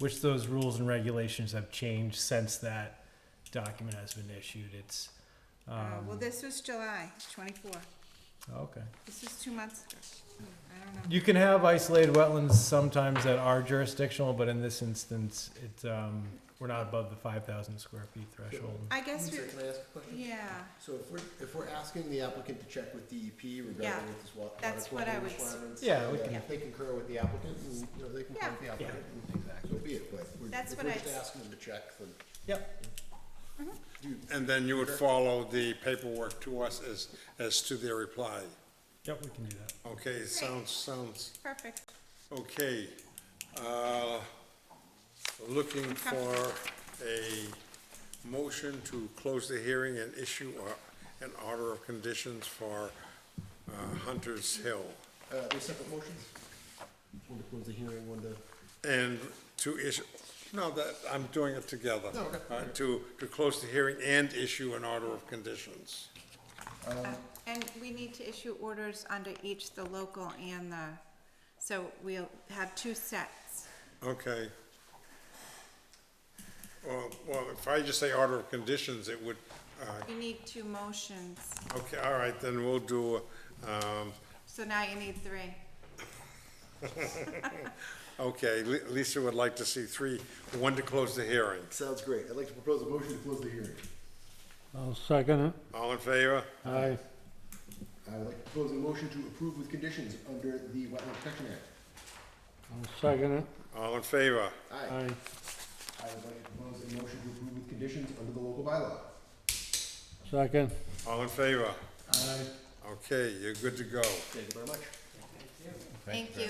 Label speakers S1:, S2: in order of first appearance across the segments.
S1: which those rules and regulations have changed since that document has been issued. It's,
S2: Uh, Well,
S1: um,
S2: this was July twenty-four.
S1: okay.
S2: This is two months ago. I don't know.
S1: You can have isolated wetlands sometimes that are jurisdictional, but in this instance, it's, um, we're not above the five thousand square feet threshold.
S2: I guess,
S3: One
S2: we.
S3: sec, Can I ask a question?
S2: yeah,
S3: So if we're, if we're asking the applicant to check with DEP
S2: Yeah,
S3: regarding with this wa- water
S2: that's what I
S3: quality
S2: was-
S3: requirements.
S1: Yeah, we
S3: then
S1: can-
S3: If they concur with the applicant, and, you know, they concur with the
S1: Yeah.
S3: applicant, and so be it, but we're,
S2: That's
S3: if
S2: what
S3: we're
S2: I
S3: just
S2: s-
S3: asking them to check, then.
S1: Yep.
S4: And then you would follow the paperwork to us as, as to their reply.
S1: Yep, we can do that.
S4: Okay, sounds, sounds,
S2: perfect.
S4: okay. Uh, Looking for a motion to close the hearing and issue a- an order of conditions for uh, Hunter's Hill.
S3: Uh, they're separate motions? One to close the hearing, one to.
S4: And to issue, no, that, I'm doing it together.
S3: No, okay.
S4: Uh, To, to close the hearing and issue an order of conditions.
S2: And we need to issue orders under each, the local and the, so we'll have two sets.
S4: Okay. Well, well, if I just say order of conditions, it would, uh,
S2: You need two motions,
S4: okay, all right, then we'll do, um,
S2: so now you need three.
S4: okay, Li- Lisa would like to see three, one to close the hearing.
S3: Sounds great. I'd like to propose a motion to close the hearing.
S5: I'll second
S4: All in favor?
S5: it. Aye.
S3: I would like to propose a motion to approve with conditions under the Wetland Protection Act.
S5: I'll second it.
S4: All in favor?
S3: Aye.
S5: Aye.
S3: I would like to propose a motion to approve with conditions under the local bylaw.
S5: Second.
S4: All in favor?
S5: Aye.
S4: Okay, you're good to go.
S3: Thank you very much.
S2: Thank you.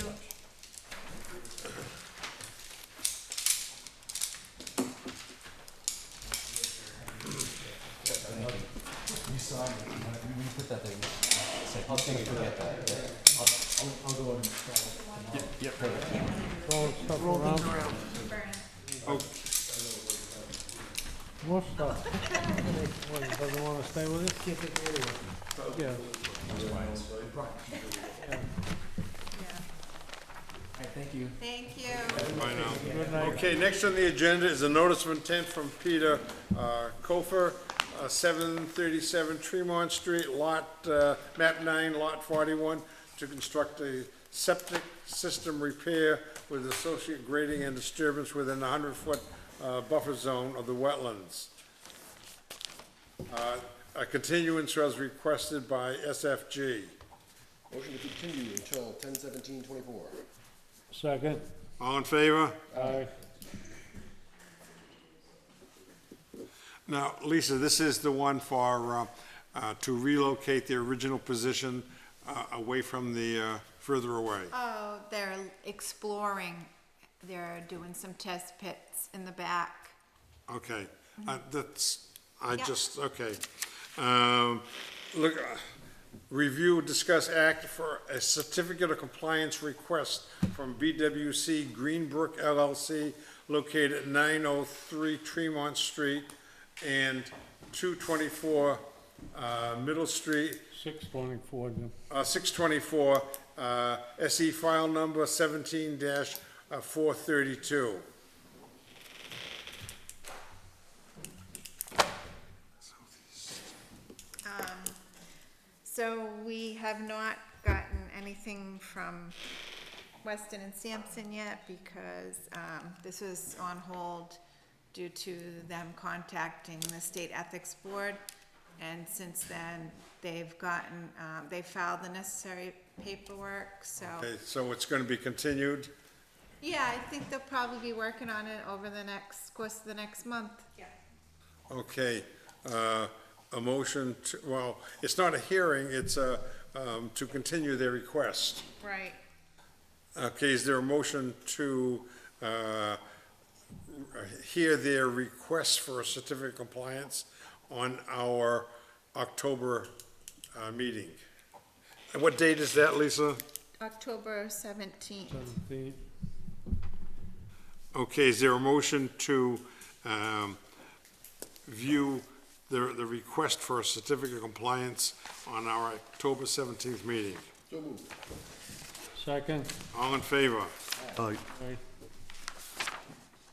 S6: You saw me, when when you put that there, you said, I'll think you forget that, but I'll, I'll, I'll go and.
S5: Throw stuff around. Oh.
S2: Vernon.
S5: More stuff. What, it doesn't wanna stay with it? Can't take it
S2: Yeah.
S6: Alright, thank you.
S2: Thank you.
S4: Bye now.
S5: Yeah. Good night.
S4: Okay, next on the agenda is a notice of intent from Peter uh, Kofer, uh, 737 Tremont Street, lot, uh, map 9, lot 41, to construct a septic system repair with associate grading and disturbance within the 100-foot buffer zone of the wetlands. Uh, A continuance was requested by SFG.
S3: Motion to continue until ten seventeen twenty-four.
S5: Second.
S4: All in favor?
S5: Aye.
S4: Now, Lisa, this is the one for, uh, uh, to relocate the original position uh, away from the, uh, further away.
S2: Oh, they're exploring, they're doing some test pits in the back.
S4: Okay, Uh, that's, I
S2: Yeah.
S4: just, okay. Um, Look, uh, review, discuss act for a certificate of compliance request from BWC Greenbrook LLC located at 903 Tremont Street and 224 uh, Middle Street
S5: Six twenty-four, Jim.
S4: Uh, 624, uh, SE file number uh, 17-432.
S2: So we have not gotten anything from Weston and Sampson yet because um, this was on hold due to them contacting the State Ethics Board. And since then, they've gotten, um, they filed the necessary paperwork, so.
S4: Okay, so it's going to be continued?
S2: Yeah, I think they'll probably be working on it over the next, course of the next month. Yeah.
S4: Okay, uh, a motion, to well, it's not a hearing, it's uh, um, to continue their request.
S2: Right.
S4: Okay, is there a motion to uh, hear their request for a certificate of compliance on our October uh, meeting? And what date is that, Lisa?
S2: October seventeenth.
S5: Seventeen.
S4: Okay, is there a motion to um, view the, the request for a certificate of compliance on our October 17th meeting?
S3: So moved.
S5: Second.
S4: All in favor?
S5: Aye.